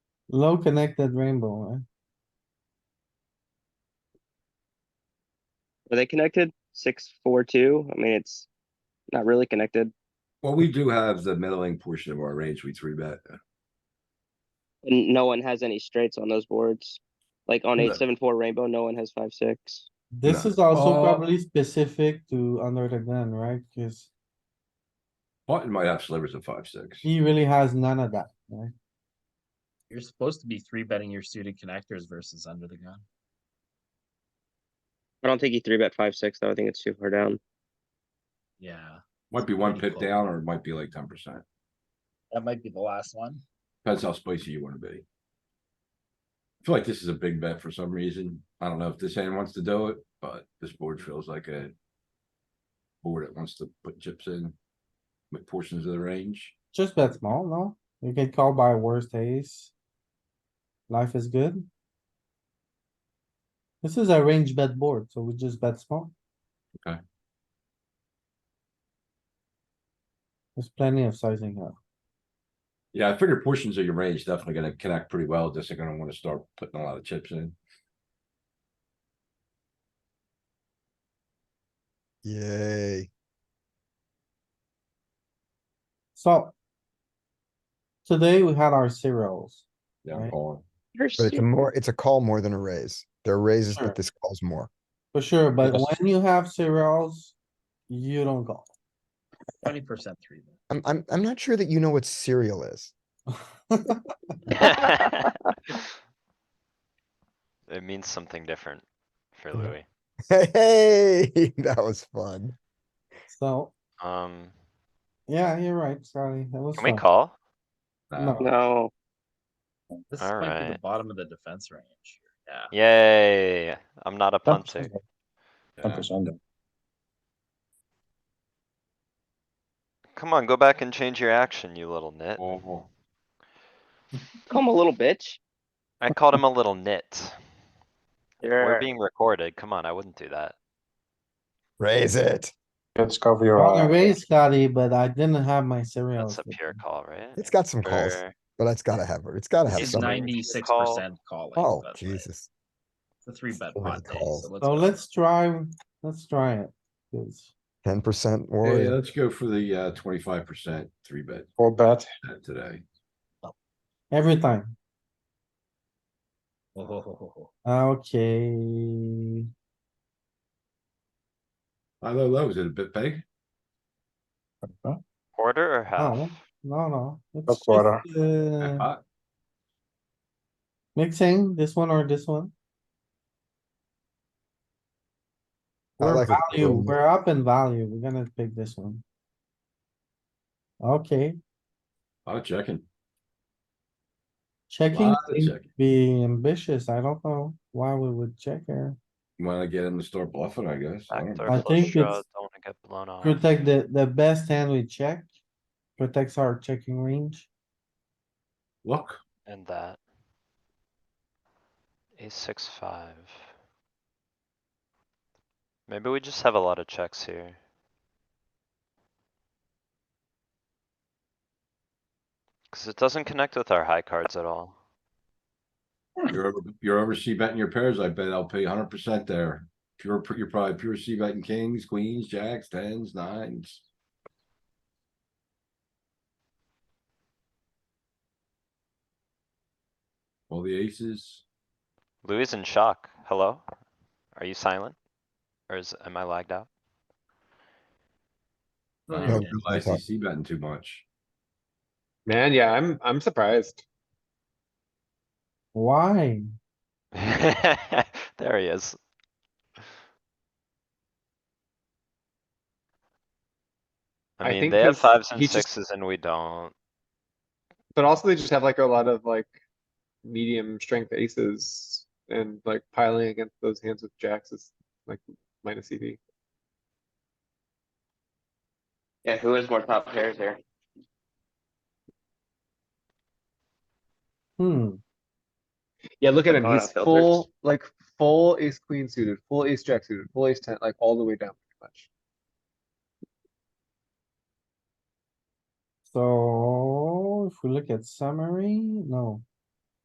Low connected rainbow, eh? Are they connected? Six, four, two? I mean, it's not really connected. Well, we do have the middling portion of our range, we three bet. And no one has any straights on those boards. Like on No. eight, seven, four rainbow, no one has five, six. This No. is also Oh. probably specific to under the gun, right? Cuz Martin might have slivers of five, six. he really has none of that. You're supposed to be three betting your suited connectors versus under the gun. I don't think he three bet five, six, though. I think it's too far down. Yeah, Might be one Pretty pip close. down or it might be like ten percent. that might be the last one. Depends how spicy you wanna be. I feel like this is a big bet for some reason. I don't know if this hand wants to do it, but this board feels like a. Board that wants to put chips in. With portions of the range. Just bet small, no? You get called by worst ace. Life is good. This is a range bet board, so we just bet small. Okay. There's plenty of sizing up. Yeah, I figure portions of your range definitely gonna connect pretty well. This are gonna wanna start putting a lot of chips in. Yay. So. Today we had our cereals. Yeah, I'm Right. calling. You're But it's a more, it's a call more than a raise. There are raises, Sure. but this calls more. For sure, but Yes. when you have cereals, you don't go. Twenty percent three bet. I'm, I'm, I'm not sure that you know what cereal is. It means something different for Yeah. Louis. Hey, that was fun. So, Um, yeah, you're right, Scotty. That was can we fun. call? Nah, No. No. This might be the Alright. bottom of the defense range. here. Yeah. Yay, I'm not a punter. yeah. Come on, go back and change your action, you little nit. Call. Come a little bitch. I called him a little nit. We're You're- being recorded. Come on, I wouldn't do that. Raise it. Let's cover your On eye. a raise, Scotty, but I didn't have my cereals. That's a pure call, right? It's got some calls, Or- but it's gotta have, it's gotta have It's He's something. some. nine- ninety-six percent calling. Oh, but, like, Jesus. It's a three bet So many pot day, calls. so let's. So go. let's try, let's try it. 'cause Ten percent Yeah, Oh, yeah, warrior. let's go for the uh twenty-five percent three bet Or bet. uh, today. Every time. Oh, ho, ho, ho, ho. Okay. High, low, low, is it a bit big? Quarter or No, half? no, no. It's That's water. just, uh, Hot. Mixing this one or this one. I We're like it. value, we're up in value. We're gonna pick this one. Okay, Oh, checking. checking Lot of seems checking. be ambitious. I don't know why we would check here. Wanna get him to start bluffing, I guess. I don't Backdoor know. I think flush draw, it's- don't wanna get blown off. Protect the, the best hand we check. Protects our checking range. Look, And that. Ace six five. Maybe we just have a lot of checks here. Cause it doesn't connect with our high cards at all. you're, over- you're over C betting your pairs. I bet LP hundred percent there. Pure, you're probably pure C betting kings, queens, jacks, tens, nines. All the aces. Louis is in shock. Hello? Are you silent? Or is, am I lagged out? Oh, I yeah, don't yeah. realize he's C betting too much. Man, yeah, I'm, I'm surprised. Why? There he is. I I mean, think they have 'cause fives and he just- sixes and we don't. But also they just have like a lot of like medium strength aces and like piling against those hands with jacks is like minus E EV. Yeah, who has more top pairs here? Hmm, Yeah, look at Like him. auto He's filters. full, like full ace queen suited, full ace jack suited, full ace ten, like all the way down pretty much. so if we look at summary, no.